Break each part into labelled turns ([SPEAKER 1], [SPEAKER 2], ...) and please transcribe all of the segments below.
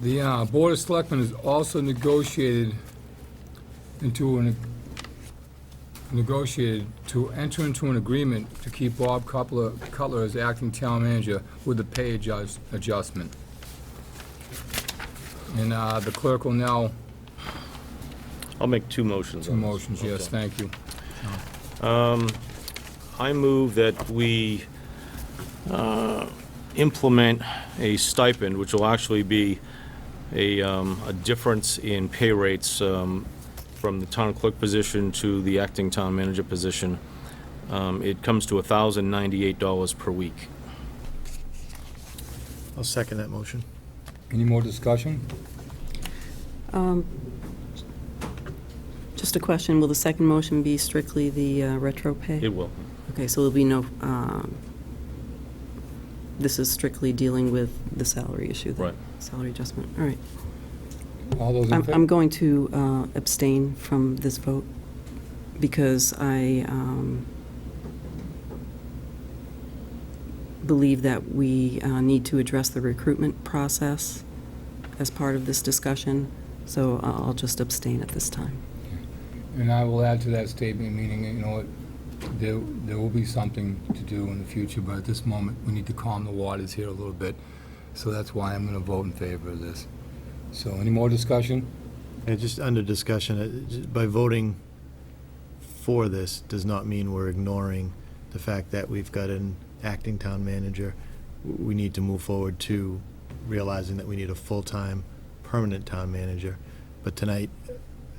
[SPEAKER 1] The uh, Board of Selectmen has also negotiated into an, negotiated to enter into an agreement to keep Bob Cutler, Cutler as acting town manager with a pay adjust- adjustment. And uh, the clerk will now,
[SPEAKER 2] I'll make two motions
[SPEAKER 1] two
[SPEAKER 2] on this.
[SPEAKER 1] motions, yes,
[SPEAKER 2] Okay.
[SPEAKER 1] thank you.
[SPEAKER 2] I move that we uh, implement a stipend, which will actually be a, um, a difference in pay rates um, from the town clerk position to the acting town manager position. Um, It comes to $1,098 per week.
[SPEAKER 3] I'll second that motion.
[SPEAKER 1] Any more discussion?
[SPEAKER 4] Just a question, will the second motion be strictly the uh, retro
[SPEAKER 2] It
[SPEAKER 4] pay?
[SPEAKER 2] will.
[SPEAKER 4] Okay, so there'll be no, um, this is strictly dealing with the salary issue? the
[SPEAKER 2] Right.
[SPEAKER 4] Salary adjustment, all right.
[SPEAKER 1] All those in
[SPEAKER 4] I'm I'm
[SPEAKER 1] favor?
[SPEAKER 4] going to uh, abstain from this vote because I um, believe that we uh, need to address the recruitment process as part of this discussion, so uh, I'll I'll just abstain at this time.
[SPEAKER 1] And I will add to that statement, meaning, you know, it- there, there will be something to do in the future, but at this moment, we need to calm the waters here a little bit. So that's why I'm gonna vote in favor of this. So any more discussion?
[SPEAKER 3] And just under discussion, uh, j- by voting for this does not mean we're ignoring the fact that we've got an acting town manager. W- We need to move forward to realizing that we need a full-time, permanent town manager. But tonight,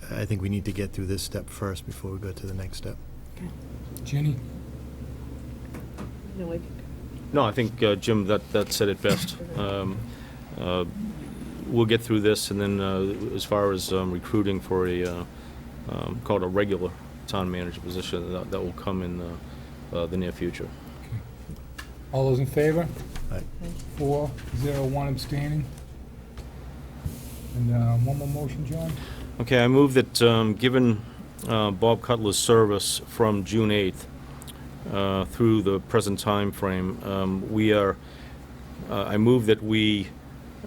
[SPEAKER 3] I think we need to get through this step first before we go to the next step.
[SPEAKER 1] Jenny?
[SPEAKER 5] No, I,
[SPEAKER 2] No, I think, uh, Jim, that, that said it best. Um, uh, We'll get through this, and then uh, as far as um, recruiting for a, uh, um, called a regular town manager position, that, that will come in uh, uh, the near future.
[SPEAKER 1] All those in favor?
[SPEAKER 3] Aye.
[SPEAKER 1] Four, zero, one abstaining. And, uh, one more motion, John?
[SPEAKER 2] Okay, I move that, um, given uh, Bob Cutler's service from June 8th uh, through the present time frame, um, we are, uh, I move that we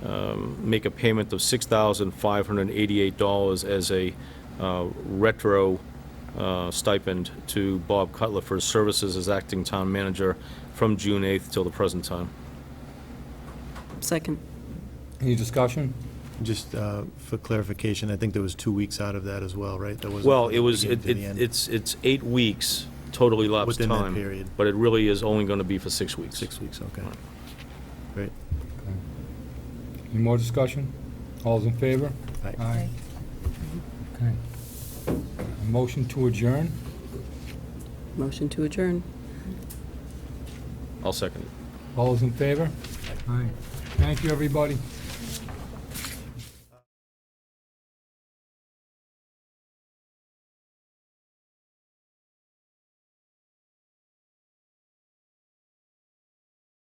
[SPEAKER 2] um, make a payment of $6,588 as a uh, retro uh, stipend to Bob Cutler for his services as acting town manager from June 8th till the present time.
[SPEAKER 4] Second.
[SPEAKER 1] Any discussion?
[SPEAKER 3] Just uh, for clarification, I think there was two weeks out of that as well, right? There wasn't
[SPEAKER 2] Well,
[SPEAKER 3] from
[SPEAKER 2] it
[SPEAKER 3] the
[SPEAKER 2] was, it-
[SPEAKER 3] beginning to the
[SPEAKER 2] it-
[SPEAKER 3] end.
[SPEAKER 2] it's, it's eight weeks total elapsed time.
[SPEAKER 3] Within that period.
[SPEAKER 2] But it really is only going to be for six weeks.
[SPEAKER 3] Six weeks, okay.
[SPEAKER 2] Right.
[SPEAKER 3] Great.
[SPEAKER 1] Any more discussion? All those in favor?
[SPEAKER 3] Aye.
[SPEAKER 1] Aye. Okay. A Motion to adjourn?
[SPEAKER 4] Motion to adjourn.
[SPEAKER 2] I'll second it.
[SPEAKER 1] All those in favor? Aye. Thank you, everybody.